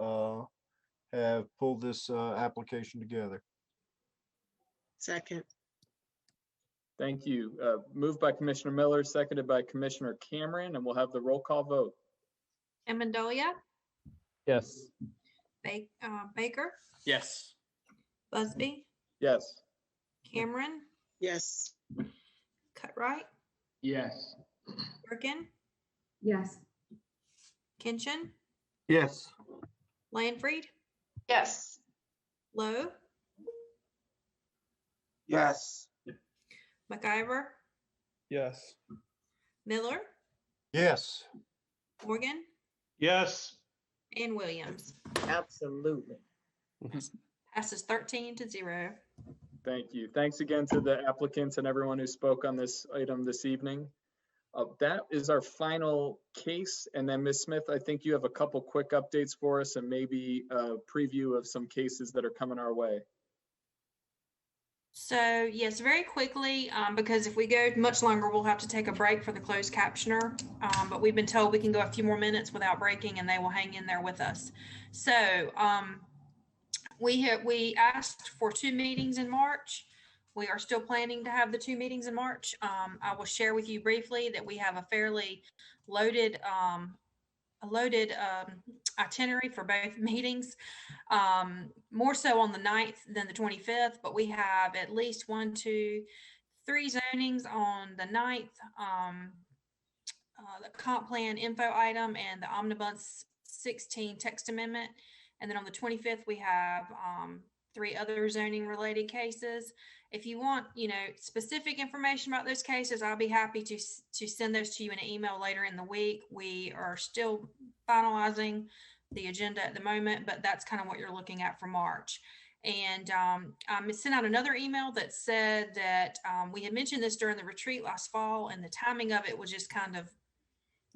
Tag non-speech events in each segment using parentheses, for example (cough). uh, have pulled this uh, application together. Second, Thank you. Uh, Moved by Commissioner Miller, seconded by Commissioner Cameron, and we'll have the roll call vote. Amendolia, Yes. Ba- uh, Baker, yes, Busby, Yes. Cameron, yes, Cutright, Yes. Durkin, yes, Kinchin, Yes. Landfried, yes, Lowe, yes, McIver, Yes. Miller, Yes, Morgan, Yes. and Williams. absolutely. Passes 13 to 0. Thank you. Thanks again to the applicants and everyone who spoke on this item this evening. Uh, That is our final case. And then Ms. Smith, I think you have a couple quick updates for us and maybe a preview of some cases that are coming our way. So yes, very quickly, um, because if we go much longer, we'll have to take a break for the closed captioner. Um, but we've been told we can go a few more minutes without breaking and they will hang in there with us. So, um, we have, we asked for two meetings in March. We are still planning to have the two meetings in March. Um, I will share with you briefly that we have a fairly loaded, um, a loaded, um, itinerary for both (laughs) meetings um, more so on the 9th than the 25th, but we have at least one, two, three zonings on the 9th. Um, uh, the comp plan info item and the omnibus 16 text amendment. And then on the 25th, we have um, three other zoning related cases. If you want, you know, specific information about those cases, I'll be happy to, s- to send those to you in an email later in the week. We are still finalizing the agenda at the moment, but that's kind of what you're looking at for March. And um, I sent out another email that said that um, we had mentioned this during the retreat last fall, and the timing of it was just kind of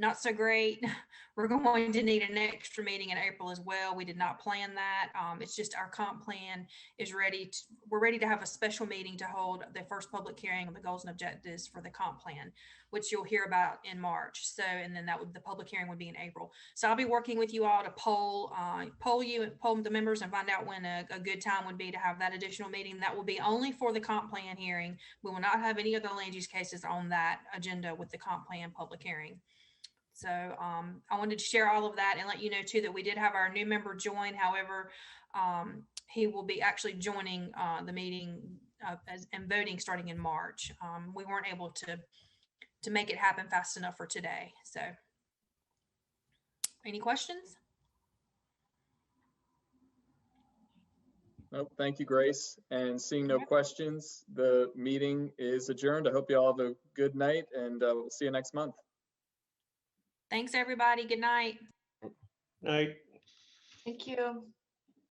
not so great. (laughs) We're going to need an extra meeting in April as well. We did not plan that. Um, It's just our comp plan is ready. to- We're ready to have a special meeting to hold the first public hearing of the goals and objectives for the comp plan, which you'll hear about in March. So, and then that would, the public hearing would be in April. So I'll be working with you all to poll, uh, poll you and poll the members and find out when a, a good time would be to have that additional meeting. That will be only for the comp plan hearing. We will not have any other land use cases on that agenda with the comp plan public hearing. So, um, I wanted to share all of that and let you know too that we did have our new member join. However, um, he will be actually joining, uh, the meeting, uh, as, and voting starting in March. Um, we weren't able to, to make it happen fast enough for today. So any questions? Nope, thank you, Grace. And seeing no questions, the meeting is adjourned. I hope you all have a good night and uh, we'll see you next month. Thanks, everybody. Good night. Aye. thank you.